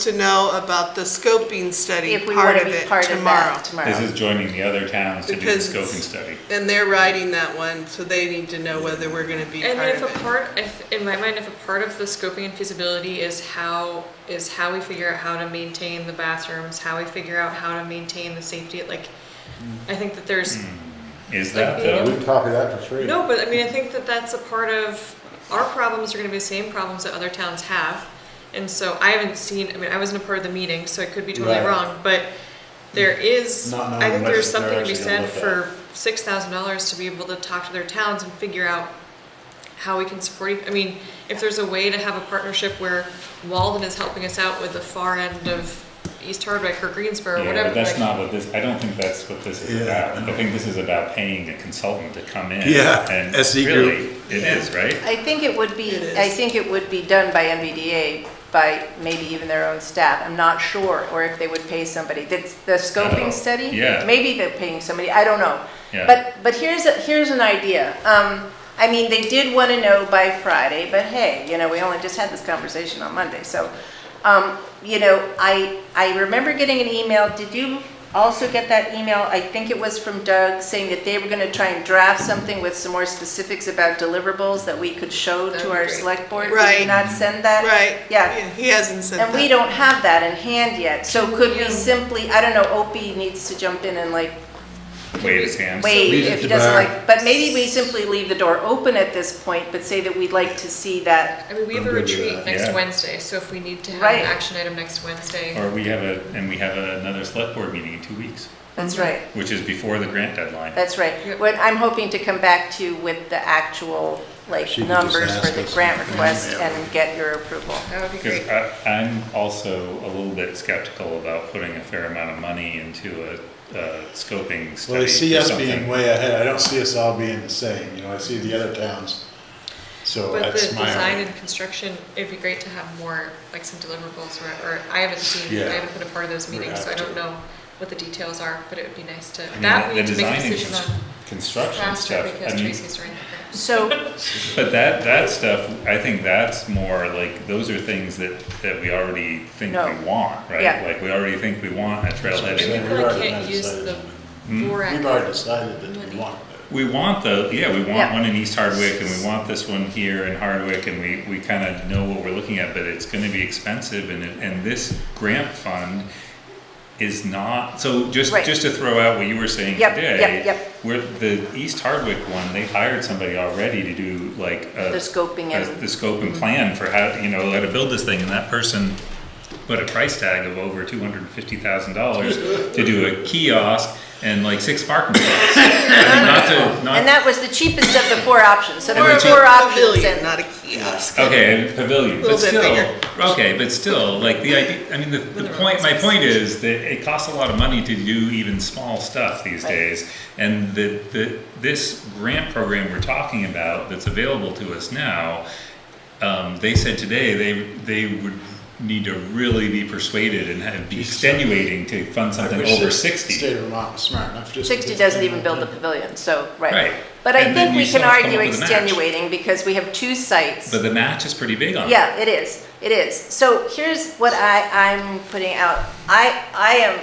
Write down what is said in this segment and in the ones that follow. to know about the scoping study If we part want of to be it part of tomorrow. that tomorrow. This is joining the other towns to do the Because- scoping study. And they're writing that one, so they need to know whether we're gonna be And part if of a it. part, if, in my mind, if a part of the scoping and feasibility is how, is how we figure out how to maintain the bathrooms, how we figure out how to maintain the safety, like, Mm. I think that there's, Is that Like, though? We copied that for free. no, but I mean, I think that that's a part of, our problems are gonna be the same problems that other towns have. And so I haven't seen, I mean, I wasn't a part of the meeting, so I could be totally Right. wrong, but there is, Not knowing I think what there's they're something to be actually said gonna look for six thousand dollars to be able to talk to their towns and figure out how we can support, each- I mean, if there's a way to have a partnership where Walden is helping us out with the far end of East Hardwick or Greensboro, or Yeah, whatever. but that's like- not what this, I don't think that's what this is Yeah, about. I I know. think this is about paying a consultant to come in. Yeah, And SE group. really, it Yeah. is, right? I think it would be, It is. I think it would be done by MBDA, by maybe even their own staff. I'm not sure, or if they would pay somebody. The, the Oh, scoping study? yeah. Maybe they're paying somebody, I don't know. Yeah. But, but here's, a- here's an idea. Um, I mean, they did want to know by Friday, but hey, you know, we only just had this conversation on Monday, so. Um, you know, I, I remember getting an email, did you also get that email? I think it was from Doug, saying that they were gonna try and draft something with some more specifics about deliverables that we could show That'd to be our great. select board. Did Right. you not send that? Right? Yeah, He hasn't said that. and we don't have that in hand yet, so could we you- simply, I don't know, Opie needs to jump in and like Wave his hand. wait Leave it if to he doesn't Barb. like, but maybe we simply leave the door open at this point, but say that we'd like to see that. I mean, we have I'm a good with retreat that. next Yeah. Wednesday, so if we need to have Right. an action item next Wednesday. Or we have a, and we have another select board meeting in two weeks, That's right. which is before the grant deadline. That's right. Yep. What I'm hoping to come back to with the actual, like, She can just numbers for ask the us. grant request Yeah. and get your approval. That would be great. Because I, I'm also a little bit skeptical about putting a fair amount of money into a, a scoping Well, study I see for us being something. way ahead, I don't see us all being the same, you know, I see the other towns, so But the that's my. design and construction, it'd be great to have more, like some deliverables, or, or I haven't seen, I Yeah. haven't been a part of those We'd meetings, so I have don't to. know what the details are, but it would be nice to, I mean, that we the need to design make a and decision cons- on Construction faster, stuff, I because mean, Tracy's right. there. So, but that, that stuff, I think that's more like, those are things that, that we already think No. we want, right? Yeah. Like, we already think we want a trailhead. Yeah, And we've we really already can't use decided. the Hmm? We've borax, already decided that we want it. We want the, yeah, we want Yeah. one in East Hardwick and we want this one here in Hardwick and we, we kind of know what we're looking at, but it's gonna be expensive and, it- and this grant fund is not, so just, Right. just to throw out what you were saying Yep, today. yep, yep. Where the East Hardwick one, they hired somebody already to do like a. The scoping a- and- The scope Mm-hmm. and plan for how, you know, how to build this thing and that person put a price tag of over two hundred and fifty thousand dollars to do a kiosk and like six parking spots. I mean, not to, not and that was the cheapest of the four options, so there Or were a four options pavilion, and, Not a kiosk. Okay, and pavilion, Little but bit still, bigger. okay, but still, like the idea, I mean, the, the point, my point is that it costs a lot of money to do even small stuff these Right. days. And the, the, this grant program we're talking about that's available to us now, um, they said today they, they would need to really be persuaded and have, be extenuating to fund I something wish over the sixty. State of Vermont was smart enough just. to sixty get doesn't them even build the done. pavilion, so, Right. right. But I And then think you we still can have to come argue up with a match. extenuating because we have two sites. But the match is pretty big on it. Yeah, it is, it is. So here's what I, I'm putting out. I, I am,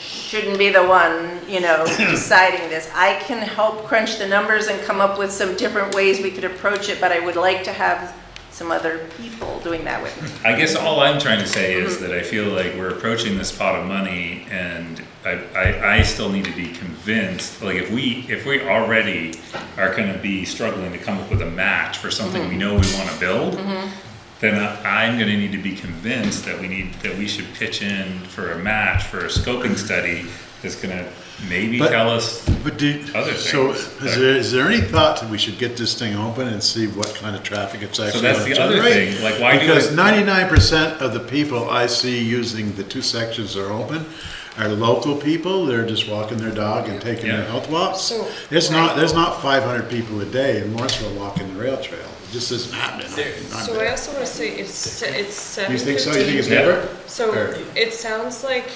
shouldn't be the one, you know, deciding this. I can help crunch the numbers and come up with some different ways we could approach it, but I would like to have some other people doing that with me. I guess all I'm trying to say is that I feel like we're approaching this pot of money and I, I, I still need to be convinced, like if we, if we already are gonna be struggling to come up with a match for something we know we wanna build, then I- I'm gonna need to be convinced that we need, that we should pitch in for a match for a scoping study that's gonna maybe But- tell us, But do, Other so things, is but- there, is there any thought that we should get this thing open and see what kind of traffic it's actually? that's gonna the other generate? thing, like, why do Because it- ninety-nine percent of the people I see using the two sections that are open are local people, they're just walking their dog and taking Yeah. their health walks. So- It's not, there's not five hundred people a day in Morrisville walking the rail trail, it just isn't happening. Not So I there. also wanna say, it's, se- it's Do seven you think so, you think it's Yeah. never? So Or- it sounds like,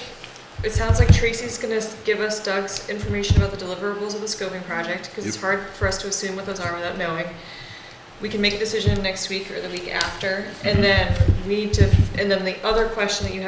it sounds like Tracy's gonna s- give us Doug's information about the deliverables of the scoping project, because it's Yep. hard for us to assume what those are without knowing. We can make a decision next week or the week after, and then we need to, f- and then the other question that you have